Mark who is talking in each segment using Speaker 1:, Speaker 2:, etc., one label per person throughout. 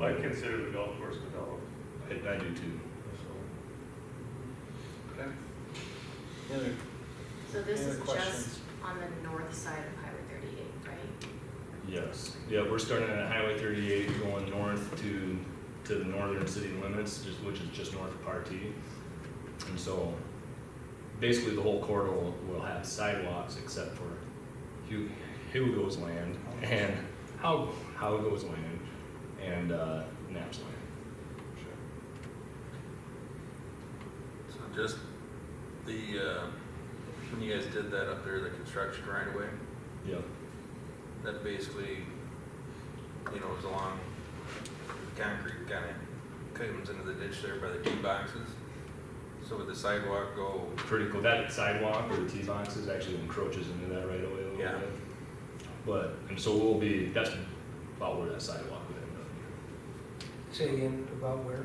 Speaker 1: I consider the golf course developed,
Speaker 2: I, I do too.
Speaker 1: so.
Speaker 2: Okay.
Speaker 3: Any other-
Speaker 4: So this
Speaker 3: Any
Speaker 4: is
Speaker 3: questions?
Speaker 4: just on the north side of Highway thirty-eight, right?
Speaker 2: Yes, yeah, we're starting at Highway thirty-eight, going north to, to the northern city limits, just, which is just north of Partee. And so, basically, the whole corridor will, will have sidewalks except for Hu- Hugo's land and How, Howgo's land and, uh, Knapp's land.
Speaker 5: So just the, uh, when you guys did that up there, the construction right away,
Speaker 2: Yep,
Speaker 5: that basically, you know, was along the concrete kind of comes into the ditch there by the tee boxes. So would the sidewalk go,
Speaker 2: pretty cool. That sidewalk or the tee boxes actually encroaches into that right away a little bit.
Speaker 5: Yeah.
Speaker 2: But, and so we'll be, that's about where that sidewalk would end up.
Speaker 6: Say again about where?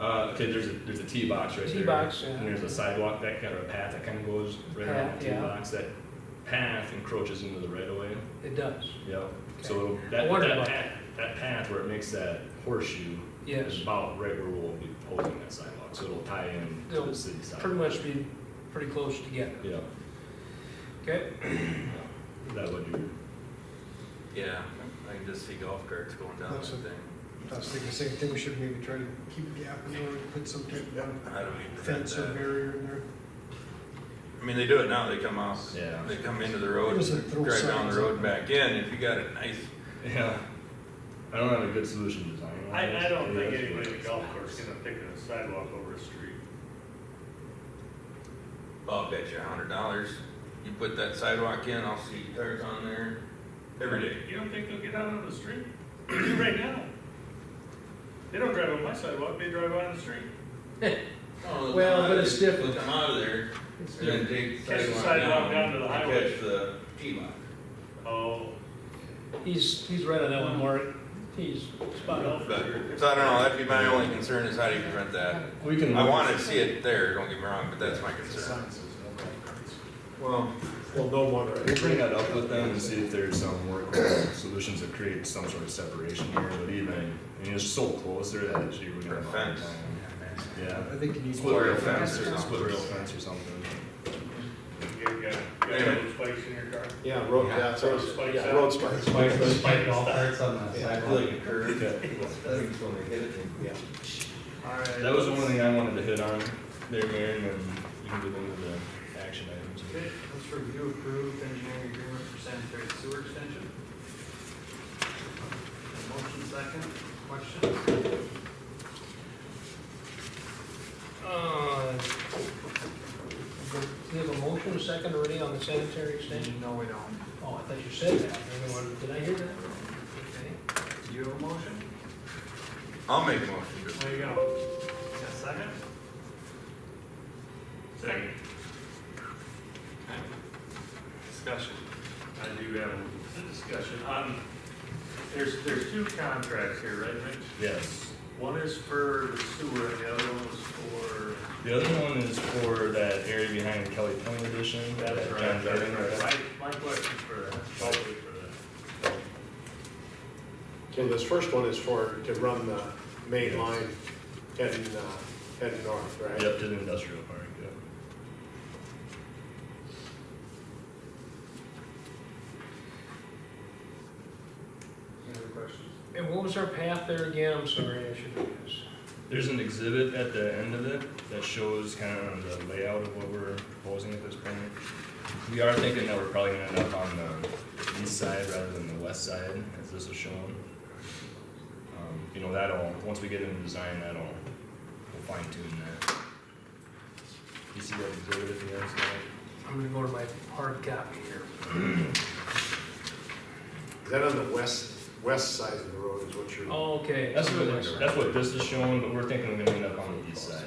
Speaker 2: Uh, okay, there's a, there's a tee box right there.
Speaker 6: Tee box, yeah.
Speaker 2: And there's a sidewalk that kind of, a path that kind of goes right around
Speaker 6: Path,
Speaker 2: the tee
Speaker 6: yeah.
Speaker 2: box. That path encroaches into the right of way.
Speaker 6: It does,
Speaker 2: Yep.
Speaker 6: Okay.
Speaker 2: So
Speaker 6: I
Speaker 2: that,
Speaker 6: wondered
Speaker 2: that
Speaker 6: about
Speaker 2: path, that path where it makes that horseshoe is
Speaker 6: yes.
Speaker 2: about right where we'll be holding that sidewalk. So it'll tie in to
Speaker 6: It'll
Speaker 2: the city side.
Speaker 6: Pretty much be pretty close together,
Speaker 2: Yeah,
Speaker 6: okay?
Speaker 2: yeah. That would do.
Speaker 5: yeah, I can just see golf carts going down that
Speaker 7: That's a-
Speaker 5: thing.
Speaker 7: I was thinking the same thing, we should maybe try to keep a gap in there, and put some type of
Speaker 5: How do we prevent
Speaker 7: fence or
Speaker 5: that?
Speaker 7: barrier in there.
Speaker 5: I mean, they do it now, they come out,
Speaker 2: Yeah.
Speaker 5: they come into the road,
Speaker 7: It was a throw
Speaker 5: drive down
Speaker 7: signs
Speaker 5: the road
Speaker 7: up.
Speaker 5: back in, if you got a nice,
Speaker 2: Yeah. I don't have a good solution design. on this.
Speaker 1: I, I don't
Speaker 2: Yes,
Speaker 1: think
Speaker 2: but-
Speaker 1: anybody at the golf course is gonna pick a sidewalk over a street.
Speaker 5: I'll bet you a hundred dollars, you put that sidewalk in, I'll see cars on there every day.
Speaker 1: You don't think they'll get out on the street? They do right now. They don't drive on my sidewalk, they drive on the street.
Speaker 5: Oh, they'll
Speaker 6: Well,
Speaker 5: come out
Speaker 6: but
Speaker 5: of
Speaker 6: it's
Speaker 5: there-
Speaker 6: different.
Speaker 5: they'll Come out of there,
Speaker 6: It's
Speaker 5: and then take
Speaker 1: Catch the
Speaker 5: sidewalk
Speaker 1: sidewalk
Speaker 5: down.
Speaker 1: down to the
Speaker 5: and
Speaker 1: highway.
Speaker 5: Catch the T-Mont.
Speaker 1: Oh,
Speaker 6: He's, he's right on that one, Mark, he's spot on.
Speaker 1: golf course.
Speaker 5: So I don't know, that'd be my only concern is how do you prevent that?
Speaker 2: We can.
Speaker 5: I wanna see it there, don't get me wrong, but that's my concern. Well.
Speaker 2: Well, no one. We'll bring that up with them and see if there's some workable solutions that create some sort of separation here, but even, I mean, it's so close there that actually we're gonna.
Speaker 5: Or
Speaker 2: have a hard
Speaker 5: fence.
Speaker 2: time. Yeah.
Speaker 7: I think you need.
Speaker 2: Split rail fence
Speaker 5: Fence
Speaker 2: or
Speaker 5: or
Speaker 2: split rail fence or something.
Speaker 1: You got, you got those spikes in your car?
Speaker 8: Yeah, road,
Speaker 5: Yeah,
Speaker 8: yeah, so
Speaker 1: road spikes
Speaker 8: yeah,
Speaker 1: out.
Speaker 8: road spikes.
Speaker 3: Spike, spike all carts on the
Speaker 8: Yeah,
Speaker 3: sidewalk.
Speaker 8: a curve. Yeah.
Speaker 3: All right.
Speaker 2: That was one thing I wanted to hit on there, Mayor, and then you can get into the action items.
Speaker 3: Okay, let's review approved engineering agreement for sanitary sewer extension. Motion second, questions?
Speaker 6: Uh, Do you have a motion, a second already on the sanitary extension?
Speaker 3: No, we don't.
Speaker 6: Oh, I thought you said that, everyone, did I hear that? Okay.
Speaker 3: Do you have a motion?
Speaker 5: I'll make a motion.
Speaker 1: There you go.
Speaker 3: Got a second?
Speaker 1: Second,
Speaker 3: Discussion.
Speaker 1: I do have a discussion. Um, there's, there's two contracts here, right, Mitch?
Speaker 2: Yes.
Speaker 1: One is for the sewer, and the other one is for.
Speaker 2: The other one is for that area behind Kelly Point Edition. that John Jordan wrote.
Speaker 1: My, my question for that, probably for that.
Speaker 8: Okay, this first one is for, to run the main line heading, uh, heading north, right?
Speaker 2: Yep, to the industrial park, yep.
Speaker 3: Any other questions?
Speaker 6: And what was our path there again? I'm sorry, I should have asked.
Speaker 2: There's an exhibit at the end of it that shows kind of the layout of what we're proposing at this point. We are thinking that we're probably gonna end up on the east side rather than the west side, as this is shown. Um, You know, that'll, once we get into design, that'll, we'll fine tune that. You see that exhibit at the end, so,
Speaker 6: I'm gonna go to my hard copy here.
Speaker 8: Is that on the west, west side of the road is what you're?
Speaker 6: Okay.
Speaker 2: that's what, that's what this is showing, but we're thinking we're gonna end up on the east side.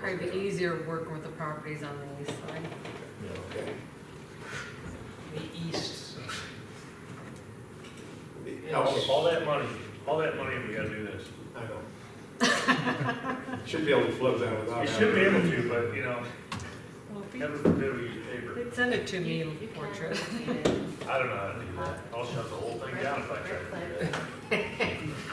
Speaker 9: Probably be easier working with the properties on the east side.
Speaker 2: you
Speaker 1: Oh.
Speaker 2: know.
Speaker 8: Okay.
Speaker 6: The east.
Speaker 1: All- All that money, all that money, we gotta do this.
Speaker 8: oh, I know. Should be able to flip that without.
Speaker 1: You should be
Speaker 8: having-
Speaker 1: able to, but, you know, never forbid we use paper.
Speaker 9: They'd Send it to me,
Speaker 4: You- you can
Speaker 9: portrait.
Speaker 4: leave it.
Speaker 1: I don't know how to do that. I'll shut the whole thing down if I try to do that.